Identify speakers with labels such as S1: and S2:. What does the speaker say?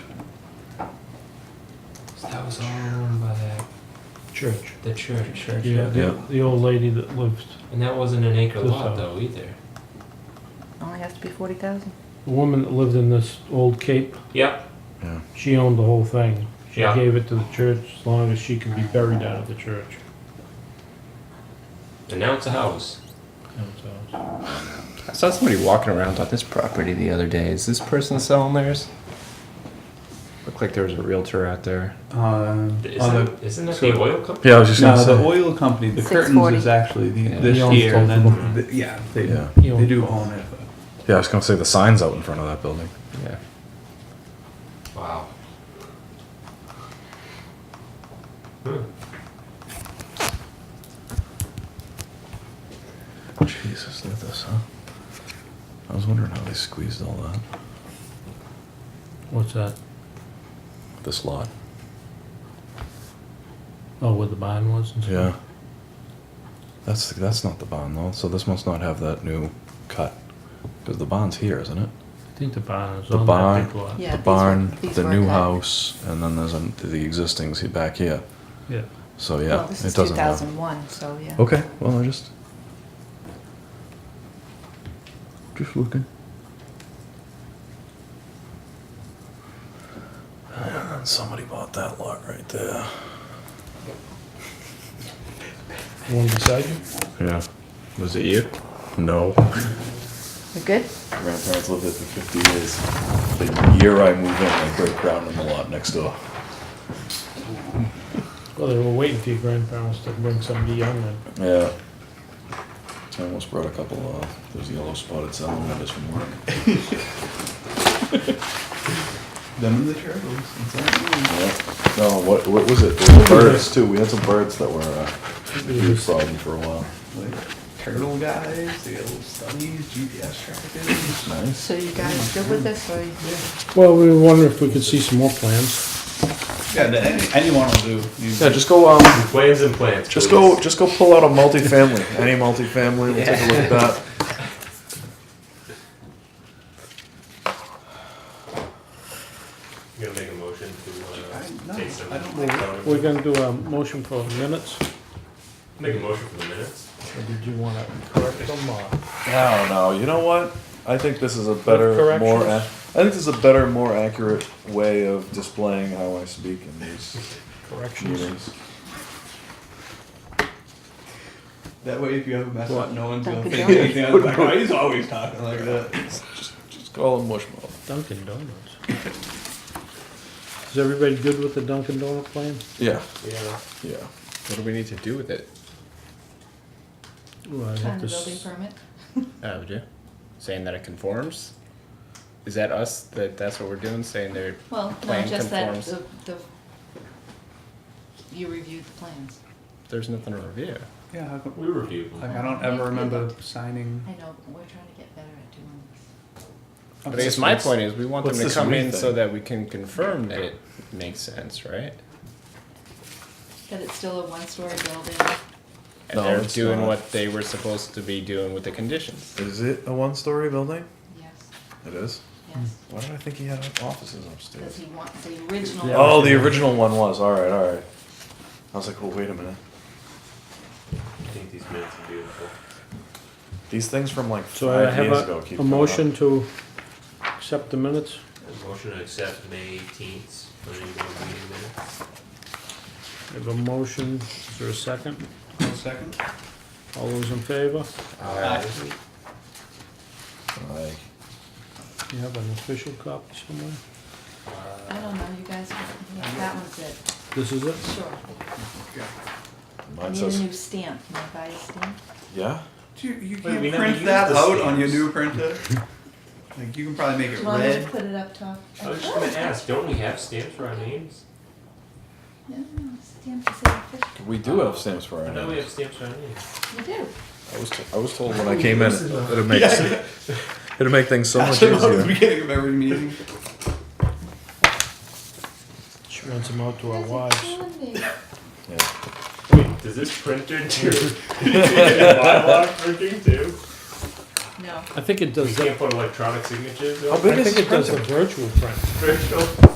S1: That was all owned by that,
S2: Church.
S1: the church, church.
S3: Yeah,
S2: Yeah.
S3: the, the old lady that lives,
S1: And that wasn't an acre
S3: This
S1: lot
S3: house.
S1: though either.
S4: Only has to be forty thousand.
S3: the woman that lived in this old cape,
S1: Yep.
S3: she owned the whole thing. She
S1: Yeah.
S3: gave it to the church as long as she could be buried out of the church.
S1: And now it's a house.
S3: That was ours.
S5: I saw somebody walking around on this property the other day. Is this person selling theirs? Looked like there was a realtor out there.
S2: Uh,
S1: Isn't,
S2: other,
S1: isn't that
S2: so-
S1: the oil company?
S6: Yeah, I was just
S2: no,
S6: gonna
S2: the
S6: say.
S2: oil company, the curtains
S4: 640.
S2: is actually the,
S5: Yeah.
S2: this
S3: He owns
S2: year, and
S3: both
S2: then, the, yeah, they,
S6: Yeah.
S3: He
S2: they
S3: owns
S2: do
S3: both.
S2: own it. but-
S6: Yeah, I was gonna say the signs out in front of that building.
S5: Yeah.
S1: Wow.
S6: Jesus, look at this, huh? I was wondering how they squeezed all that.
S3: What's that?
S6: This lot.
S3: Oh, where the barn was and stuff?
S6: Yeah. That's that's not the bond though. So this must not have that new cut, because the bond's here, isn't it?
S3: I think the barn is
S6: The
S3: on
S6: barn.
S3: that big lot.
S4: Yeah.
S6: the
S4: these
S6: barn,
S4: were- these
S6: the
S4: were
S6: new
S4: cut.
S6: house, and then there's an, the existing's he- back here.
S3: Yeah.
S6: So yeah,
S4: Well, this
S6: it
S4: is two
S6: doesn't Oh. have-
S4: thousand one, so yeah.
S6: Okay, well I just just looking. And then somebody bought that lot right there.
S3: The One beside you?
S6: Yeah. Was it you? No.
S4: We good?
S6: Grandparents lived there for 50 years. The year I moved in, I broke ground on the lot next door.
S3: Well, they were waiting for your grandparents to bring somebody young in.
S6: Yeah. I almost brought a couple of those yellow spotted salmon members from work.
S2: Them and the turtles. it's all-
S6: Yeah. No, what, what was it? There were birds too. We had some birds that were uh, a huge problem for a while.
S2: like, Turtle guys, the old studies, GPS trackers.
S6: Nice.
S4: So you
S6: Mm-hmm.
S4: guys good with this or? you-
S3: Well, we were wondering if we could see some more plans.
S2: Yeah, the- any, anyone will do. You-
S6: Yeah, just go um,
S1: Plans and plants.
S6: just
S1: please.
S6: go, just go pull out a multifamily. Any multifamily, we'll take a look at that.
S1: You gonna make a motion to
S2: I- no,
S1: uh, take some
S2: I don't
S1: take
S2: know.
S1: some-
S3: We're gonna do a motion for minutes.
S1: Make a motion for the minutes.
S3: Or did you wanna correct them or?
S6: No, no. You know what? I think this is a better,
S3: corrections?
S6: more. ac- I think this is a better, more accurate way of displaying how I speak in these
S3: Corrections.
S6: meetings.
S2: That way, if you ever mess up, no one's gonna
S4: Dunkin'
S2: think
S4: Donuts.
S2: anything. Like, oh, he's always talking like that.
S6: Just call them mushmouth.
S3: Dunkin' Donuts. Is everybody good with the Dunkin' Donut plan?
S6: Yeah,
S1: Yeah.
S6: yeah.
S5: What do we need to do with it?
S3: Well, I
S4: Sign
S3: have
S4: the
S3: to
S4: building
S3: s-
S4: permit?
S5: Oh, would you? Saying that it conforms? Is that us? That that's what we're doing? Saying they're
S4: Well, no,
S5: Plan
S4: just that
S5: conforms.
S4: the, the, you reviewed the plans.
S5: there's nothing to review.
S2: Yeah, how come-
S1: We review them.
S2: like I don't ever remember signing.
S4: I know, but we're trying to get better at doing this.
S5: But I guess my point is, we want them
S6: what's
S5: to
S6: this
S5: come
S6: we
S5: in
S6: thing?
S5: so that we can confirm that it makes sense, right?
S4: That it's still a one-story building.
S5: And
S6: No,
S5: they're
S6: it's
S5: doing
S6: not.
S5: what they were supposed to be doing with the conditions.
S6: Is it a one-story building?
S4: Yes,
S6: It is.
S4: yes.
S6: Why did I think he had offices
S2: Mm.
S4: Because
S6: upstairs?
S4: he wants the original.
S6: Oh, the original one was. All right, all right. I was like, well, wait a minute.
S1: I think these minutes are beautiful.
S6: These things from like
S3: So I
S6: five
S3: have
S6: years ago
S3: a,
S6: keep
S3: a
S6: coming up.
S3: motion to accept the minutes.
S1: A motion to accept May 18th planning board meeting minutes.
S3: I have a motion, is there a second?
S2: One second.
S3: All those in favor?
S1: Aye.
S6: Aye.
S3: You have an official copy somewhere?
S1: Uh,
S4: I don't know, you guys, yeah, that one's it,
S3: This is it?
S4: sure. I
S6: Mine
S4: need a
S6: says,
S4: new stamp, can I buy a stamp?
S6: yeah.
S2: Do you, you
S1: we
S2: can't
S1: never
S2: print
S1: used
S2: that
S1: the
S2: out on your
S1: stamps.
S2: new printer? Like, you can probably make
S4: Do
S2: it
S4: you want me to
S2: red.
S4: put it up top?
S1: I was just gonna ask, don't we have stamps for our names?
S4: No, stamp is official.
S6: We do have stamps for
S1: I
S6: our
S1: know we have
S6: names.
S1: stamps for our names.
S4: You do?
S6: I was, t- I was told when I came in, it'd make,
S2: Yeah.
S6: it'd make things so much
S2: That's what I was
S6: easier.
S2: beginning of every meeting.
S3: She rents them out to our
S4: That's a
S3: wives.
S4: killing me.
S6: Yeah.
S1: Wait, does this printer do? a lot of printing too?
S4: No.
S3: I think it
S1: You
S3: does that,
S1: can't put electronic signatures
S6: How
S1: on
S6: big
S3: I
S6: is
S3: think
S6: this
S3: it does the
S6: printer?
S3: virtual print.
S1: virtual.